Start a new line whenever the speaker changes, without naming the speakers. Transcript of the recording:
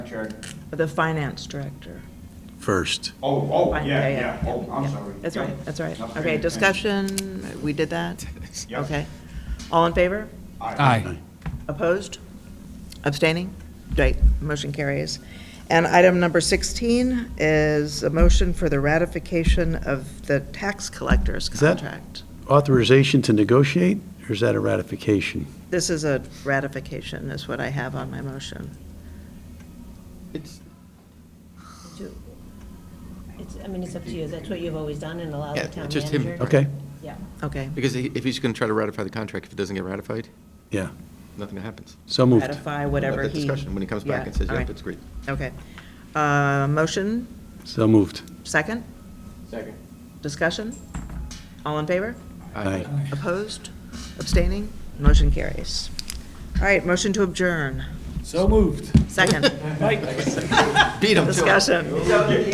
Check.
The finance director.
first.
Oh, oh,
Fin-
yeah, yeah, oh, I'm
yeah.
sorry.
That's
Yeah.
right, that's right.
Not paying
Okay,
attention.
discussion, we did that?
Yep.
Okay. All in favor?
Aye.
Opposed? Abstaining? Right, motion carries. And item number 16 is a motion for the ratification of the tax collector's
Is that-
contract.
Authorization to negotiate, or is that a ratification?
This is a ratification, is what I have on my motion.
It's,
to- It's, I mean, it's up to you, that's what you've always done and allowed the
Yeah,
town
just him.
manager.
Okay,
Yeah.
Okay,
because he- if he's going to try to ratify the contract, if it doesn't get ratified,
yeah,
nothing happens.
so moved.
ratify
We'll have
whatever
that
he.
Discussion, when he comes back
Yeah,
and says,
all
yep,
right.
it's great.
Okay. Uh, Motion,
So moved.
second?
Second.
Discussion? All in favor?
Aye.
Opposed? Abstaining? Motion carries. All right, motion to adjourn.
So moved.
Second,
Beat him to it.
discussion.